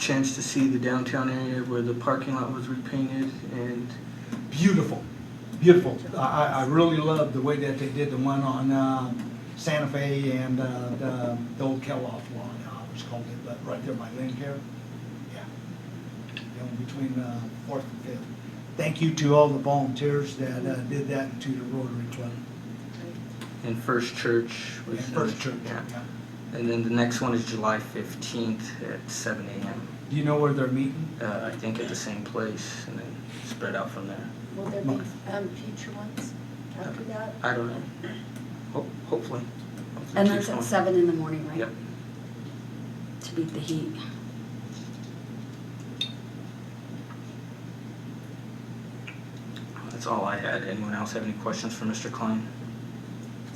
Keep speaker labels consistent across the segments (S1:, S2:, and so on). S1: chance to see the downtown area where the parking lot was repainted and
S2: Beautiful, beautiful. I, I- I really love the way that they did the one on um, Santa Fe and uh, the the old Kellogg one, I was called it, but right there by Lynn Care. Yeah. Down between uh, Fourth and Fifth. Thank you to all the volunteers that uh, did that and to the Rotary Club
S1: and First Church.
S2: and
S1: was-
S2: First Church.
S1: Yeah.
S2: yeah.
S1: And then the next one is July fifteenth at seven AM,
S2: Do you know where they're meeting?
S1: uh, I think at the same place and then spread out from there.
S3: Will there be um, future ones after that?
S1: I don't know. Ho- Hopefully. Hopefully
S3: And
S1: keep
S3: that's at
S1: going.
S3: seven in the morning, right?
S1: Yep.
S3: To beat the heat.
S1: That's all I had. Anyone else have any questions for Mr. Klein?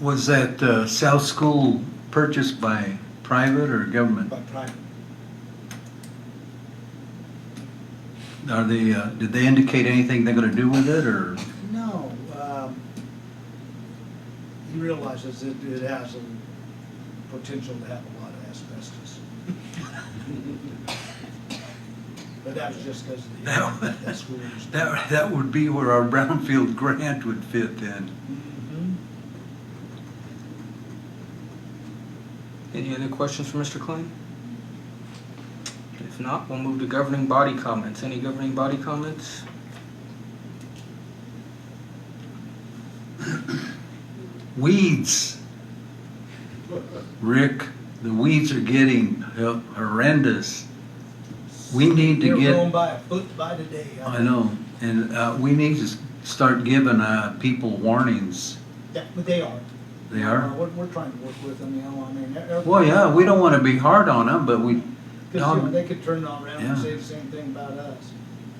S4: Was that uh, South School purchased by private or government?
S2: By private.
S4: Are they, uh, did they indicate anything they're going to do with it, or?
S2: No, um, he realizes it, it has a potential to have a lot of asbestos. But that was just because of the,
S4: No.
S2: that school was.
S4: That, that would be where our brownfield grant would fit in.
S2: Mhm.
S1: Any other questions for Mr. Klein? If not, we'll move to governing body comments. Any governing body comments?
S4: Weeds. Rick, the weeds are getting horrendous. We need to
S2: They're
S4: get-
S2: growing by a foot by the day.
S4: I know, and uh, we need to start giving uh, people warnings.
S2: Yeah, But they are.
S4: They are?
S2: We're, we're trying to work with them, you know, I mean. they're-
S4: Well, yeah, we don't want to be hard on them, but we,
S2: Because, you know, they could turn it around and
S4: Yeah.
S2: say the same thing about us.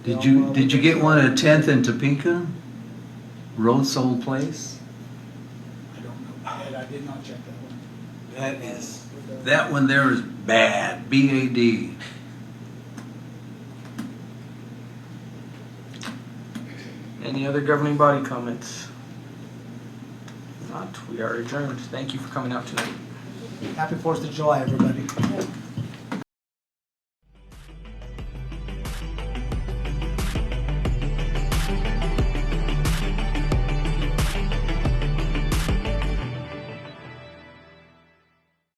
S4: Did
S2: know,
S4: you,
S2: well,
S4: did you
S2: we-
S4: get one at Tenth and Topeka? Rose Old Place?
S2: I don't know, Ed, I did not check that one.
S4: That is.
S2: But, uh,
S4: That one there is bad, B A D.
S1: Any other governing body comments? If not, we are adjourned. Thank you for coming out tonight.
S2: Happy Fourth of July, everybody.
S3: Yeah.